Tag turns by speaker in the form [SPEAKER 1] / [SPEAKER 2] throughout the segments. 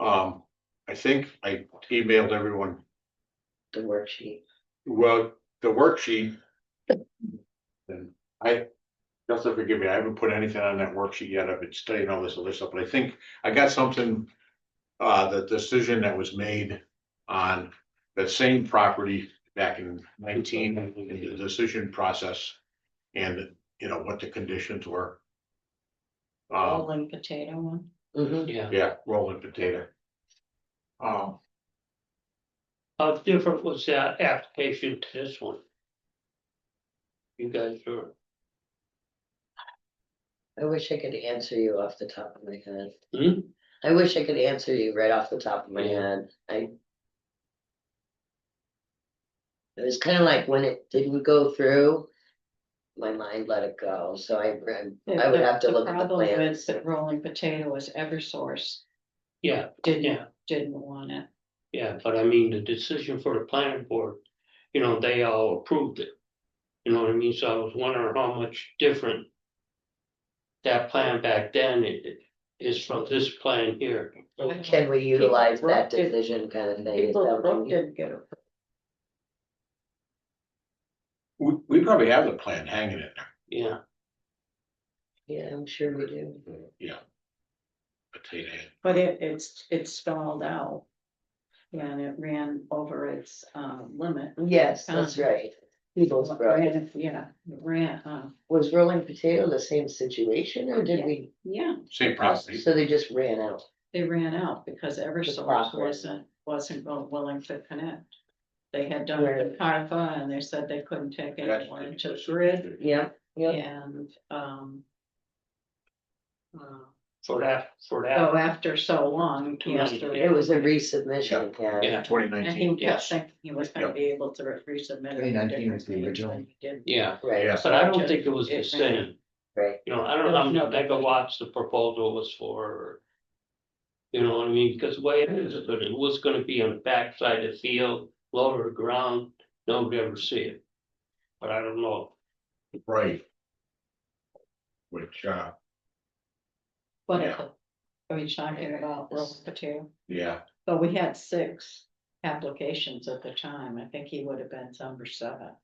[SPEAKER 1] Um, I think I emailed everyone,
[SPEAKER 2] the worksheet.
[SPEAKER 1] well, the worksheet. And I, Justin, forgive me, I haven't put anything on that worksheet yet. I've been studying all this other stuff, but I think I got something. Uh, the decision that was made on that same property back in nineteen, in the decision process. And, you know, what the conditions were. Um,
[SPEAKER 2] Rolling potato one. Mm-hmm.
[SPEAKER 3] Yeah,
[SPEAKER 1] yeah, rolling potato. Um,
[SPEAKER 3] how different was that application to this one? You guys are,
[SPEAKER 2] I wish I could answer you off the top of my head.
[SPEAKER 3] Hmm?
[SPEAKER 2] I wish I could answer you right off the top of my
[SPEAKER 3] Yeah.
[SPEAKER 2] head, I. It was kind of like when it didn't go through, my mind let it go, so I, I would have to look at the
[SPEAKER 4] Problem
[SPEAKER 2] plan.
[SPEAKER 4] is that rolling potato was Eversource,
[SPEAKER 3] yeah,
[SPEAKER 4] didn't,
[SPEAKER 3] yeah,
[SPEAKER 4] didn't want it.
[SPEAKER 3] yeah, but I mean, the decision for the planning board, you know, they all approved it. You know what I mean? So I was wondering how much different. That plan back then i- i- is from this plan here.
[SPEAKER 2] Can we utilize that
[SPEAKER 4] People broke it.
[SPEAKER 2] decision kind of thing? Is that
[SPEAKER 4] People
[SPEAKER 2] what
[SPEAKER 4] Brook
[SPEAKER 2] you-
[SPEAKER 4] didn't get it.
[SPEAKER 1] we, we probably have the plan hanging in there.
[SPEAKER 3] Yeah,
[SPEAKER 2] Yeah, I'm sure we do.
[SPEAKER 1] Yeah. Potato. head.
[SPEAKER 4] But it, it's, it stalled out. And it ran over its, um, limit.
[SPEAKER 2] Yes, that's
[SPEAKER 4] Um,
[SPEAKER 2] right. People's Brook.
[SPEAKER 4] Ran- Yeah, ran, uh,
[SPEAKER 2] Was rolling potato the same situation or did
[SPEAKER 4] Yeah.
[SPEAKER 2] we,
[SPEAKER 4] yeah,
[SPEAKER 1] Same property.
[SPEAKER 2] so they just ran out?
[SPEAKER 4] they ran out because Eversource
[SPEAKER 2] property.
[SPEAKER 4] wasn't, wasn't go- willing to connect. They had done the CARPA and they said they couldn't take anyone into the grid
[SPEAKER 2] Yeah, yeah.
[SPEAKER 4] and, um. uh,
[SPEAKER 3] for that, for
[SPEAKER 4] So
[SPEAKER 3] that,
[SPEAKER 4] after so long, he has to.
[SPEAKER 2] It was a resubmission, yeah.
[SPEAKER 3] yeah,
[SPEAKER 1] Twenty
[SPEAKER 4] And he
[SPEAKER 1] nineteen,
[SPEAKER 4] kept
[SPEAKER 3] yes.
[SPEAKER 4] thinking he was gonna
[SPEAKER 1] Yep.
[SPEAKER 4] be able to re- resubmit. it.
[SPEAKER 5] 2019 was the
[SPEAKER 4] He
[SPEAKER 5] original.
[SPEAKER 4] didn't.
[SPEAKER 3] yeah,
[SPEAKER 2] Right,
[SPEAKER 1] yes,
[SPEAKER 3] but I don't think it was the same.
[SPEAKER 2] right.
[SPEAKER 3] You know, I don't know how many megawatts the proposal was for. You know what I mean, because the way it is, but it was gonna be on the backside of the field, lower the ground, nobody ever see it. But I don't know,
[SPEAKER 1] right. Which, uh,
[SPEAKER 4] But
[SPEAKER 1] Yeah.
[SPEAKER 4] are we talking about roll potato?
[SPEAKER 1] yeah,
[SPEAKER 4] But we had six applications at the time. I think he would have been number seven.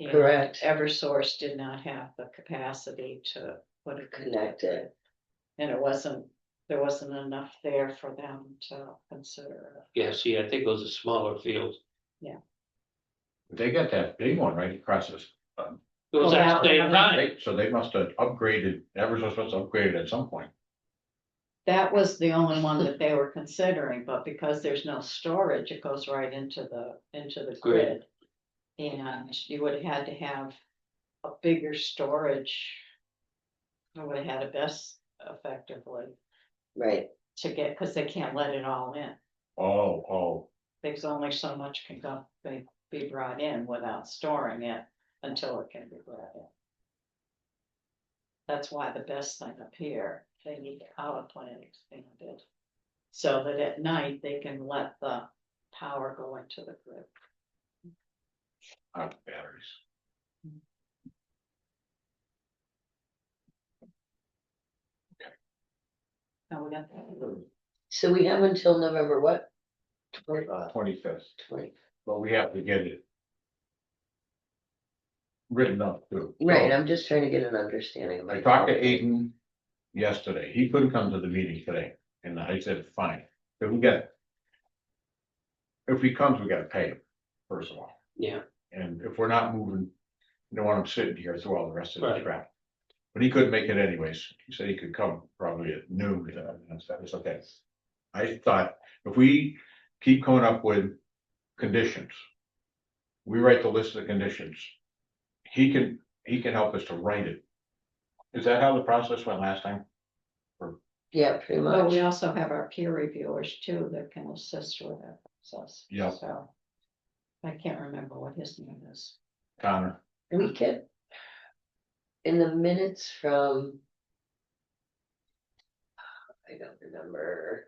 [SPEAKER 4] And
[SPEAKER 2] Correct.
[SPEAKER 4] Eversource did not have the capacity to put a.
[SPEAKER 2] Connect it.
[SPEAKER 4] And it wasn't, there wasn't enough there for them to consider. it.
[SPEAKER 3] yeah, see, I think it was a smaller field.
[SPEAKER 1] they got that big one right across this,
[SPEAKER 3] It was
[SPEAKER 4] Oh, that
[SPEAKER 3] actually
[SPEAKER 4] one.
[SPEAKER 3] right,
[SPEAKER 1] right, so they must have upgraded, Eversource must have upgraded at some point.
[SPEAKER 4] That was the only one that they were considering, but because there's no storage, it goes right into the, into the
[SPEAKER 3] Grid.
[SPEAKER 4] grid. And you would have had to have a bigger storage. I would have had it best effectively
[SPEAKER 2] Right,
[SPEAKER 4] to get, cause they can't let it all in.
[SPEAKER 1] Oh, oh,
[SPEAKER 4] There's only so much can go, be, be brought in without storing it until it can be brought in. That's why the best thing up here, they need the power plant expanded. So that at night they can let the power go into the grid.
[SPEAKER 1] out of batteries.
[SPEAKER 4] Now we got that.
[SPEAKER 2] so we have until November what? Twenty,
[SPEAKER 1] Twenty fifth,
[SPEAKER 2] twenty,
[SPEAKER 1] but we have to get it. Written up too. Oh, So,
[SPEAKER 2] right, I'm just trying to get an understanding. of
[SPEAKER 1] I talked to Aiden yesterday, he couldn't come to the meeting today, and I said, fine, but we got. If he comes, we gotta pay him, first of all.
[SPEAKER 3] yeah,
[SPEAKER 1] And if we're not moving, you don't want him sitting here through all the rest of the
[SPEAKER 3] Right.
[SPEAKER 1] crap. But he couldn't make it anyways. He said he could come probably at noon. and I said, It's okay. I thought if we keep coming up with conditions. We write the list of the conditions. He can, he can help us to write it. Is that how the process went last time?
[SPEAKER 2] Yeah, pretty
[SPEAKER 4] Well, we
[SPEAKER 2] much.
[SPEAKER 4] also have our peer reviewers too that can assist with that process.
[SPEAKER 1] Yeah.
[SPEAKER 4] So. I can't remember what his name is.
[SPEAKER 1] Connor,
[SPEAKER 2] We could. In the minutes from. I don't remember.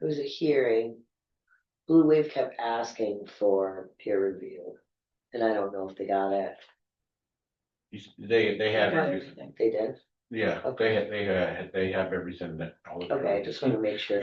[SPEAKER 2] It was a hearing. Blue Wave kept asking for peer review. And I don't know if they got it.
[SPEAKER 1] he's, they, they have,
[SPEAKER 4] About
[SPEAKER 1] everything.
[SPEAKER 4] everything.
[SPEAKER 2] They did?
[SPEAKER 1] yeah, they, had- they, uh, they have everything that. all the-
[SPEAKER 2] Okay, I just wanna make sure.